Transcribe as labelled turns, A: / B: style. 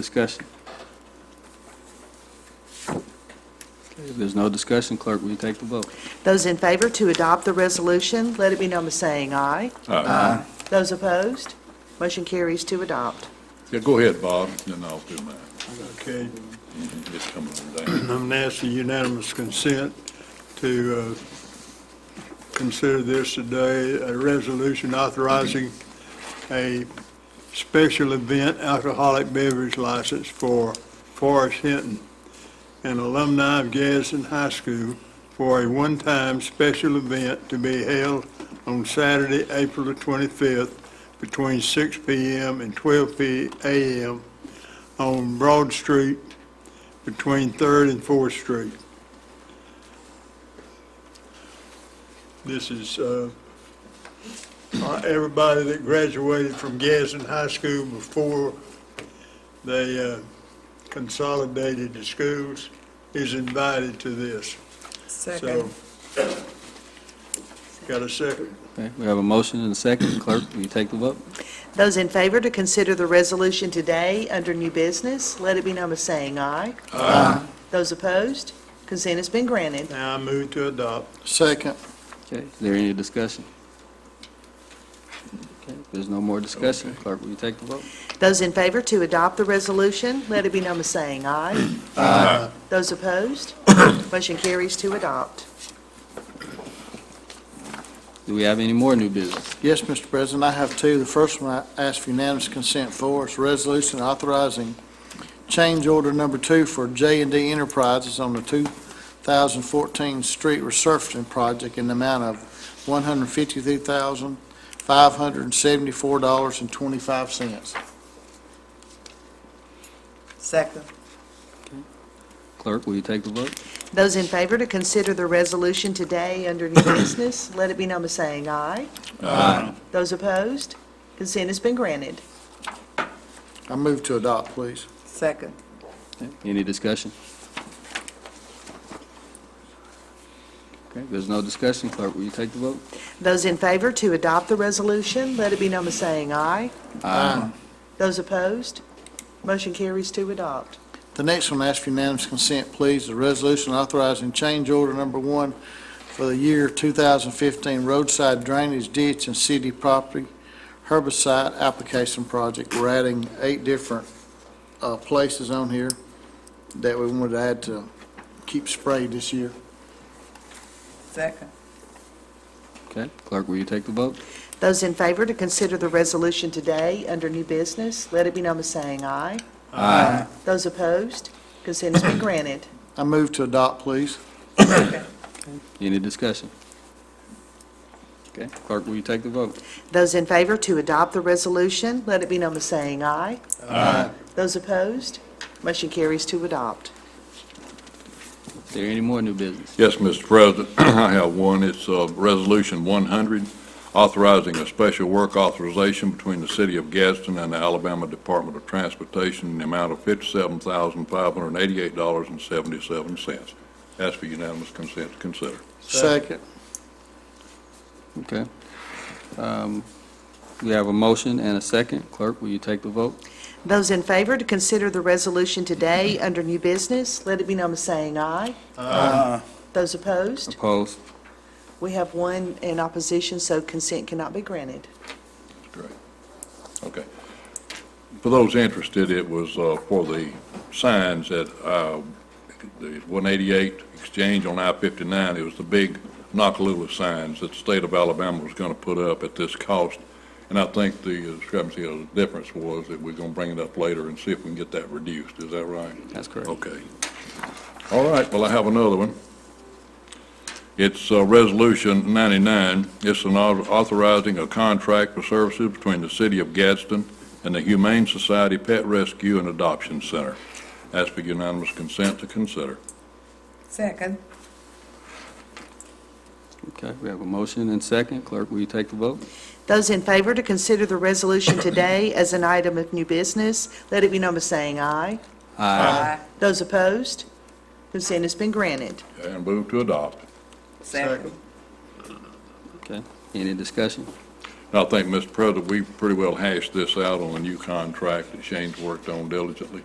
A: Discussion. Okay, If there's no discussion, clerk, will you take the vote?
B: Those in favor to adopt the resolution, let it be known by saying aye.
C: Uh,
B: Aye. Those opposed, motion carries to adopt.
C: Yeah, go ahead, Bob, and I'll do mine.
D: Okay,
C: It's coming from Dan.
D: I'm asking unanimous consent to uh, consider this today, a resolution authorizing a special event alcoholic beverage license for Forrest Hinton, an alumni of Gadsden High School, for a one-time special event to be held on Saturday, April the 25th, between 6 PM and 12 p- AM on Broad Street, between Third and Fourth Street. This is, uh, uh, everybody that graduated from Gadsden High School before they, uh, consolidated the schools is invited to this. So, Got a second?
A: Okay, we have a motion and a second. Clerk, will you take the vote?
B: Those in favor to consider the resolution today under new business, let it be known by saying aye. Aye. Those opposed, consent has been granted.
D: Now I move to adopt.
E: Second.
A: Okay, is there any discussion? Okay, if there's no more discussion, clerk, will you take the vote?
B: Those in favor to adopt the resolution, let it be known by saying aye. Aye. Those opposed, motion carries to adopt.
A: Do we have any more new business?
E: Yes, Mr. President, I have two. The first one I ask for unanimous consent for is resolution authorizing change order number two for j and D Enterprises on the 2014 street resurfacing project in the amount of $153,574.25.
F: Second.
A: Clerk, will you take the vote?
B: Those in favor to consider the resolution today under new business, let it be known by saying aye. Aye. Those opposed, consent has been granted.
E: I move to adopt, please.
F: Second.
A: Okay, Any discussion? Okay, if there's no discussion, clerk, will you take the vote?
B: Those in favor to adopt the resolution, let it be known by saying aye.
E: Aye.
B: Those opposed, motion carries to adopt.
E: The next one, I ask for unanimous consent, please, the resolution authorizing change order number one for the year 2015 roadside drainage ditch and city property herbicide application project. We're adding eight different uh, places on here that we wanted to add to keep sprayed this year.
F: Second.
A: Okay, clerk, will you take the vote?
B: Those in favor to consider the resolution today under new business, let it be known by saying aye. Aye. Those opposed, consent has been granted.
E: I move to adopt, please.
A: Any discussion? Okay, clerk, will you take the vote?
B: Those in favor to adopt the resolution, let it be known by saying aye. Aye. Those opposed, motion carries to adopt.
A: Is there any more new business?
C: Yes, Mr. President, I have one. It's uh, Resolution 100, authorizing a special work authorization between the City of Gadsden and the Alabama Department of Transportation in the amount of $57,588.77. Ask for unanimous consent to consider.
E: Second.
A: Okay. Um, We have a motion and a second. Clerk, will you take the vote?
B: Those in favor to consider the resolution today under new business, let it be known by saying aye. Aye. Those opposed,
A: Opposed?
B: we have one in opposition, so consent cannot be granted.
C: Great. Okay. For those interested, it was uh, for the signs at uh, the 188 Exchange on I-59. It was the big Nakalula signs that the state of Alabama was going to put up at this cost. And I think the discrepancy or the difference was that we're going to bring it up later and see if we can get that reduced. Is that right?
A: That's correct.
C: Okay. All right, well, I have another one. It's uh, Resolution 99. It's an au- authorizing a contract for services between the City of Gadsden and the Humane Society Pet Rescue and Adoption Center. Ask for unanimous consent to consider.
F: Second.
A: Okay, we have a motion and second. Clerk, will you take the vote?
B: Those in favor to consider the resolution today as an item of new business, let it be known by saying aye.
F: Aye.
B: Those opposed, consent has been granted.
C: And move to adopt.
F: Second.
A: Okay, any discussion?
C: I think, Mr. President, we pretty well hashed this out on a new contract that Shane's worked on diligently.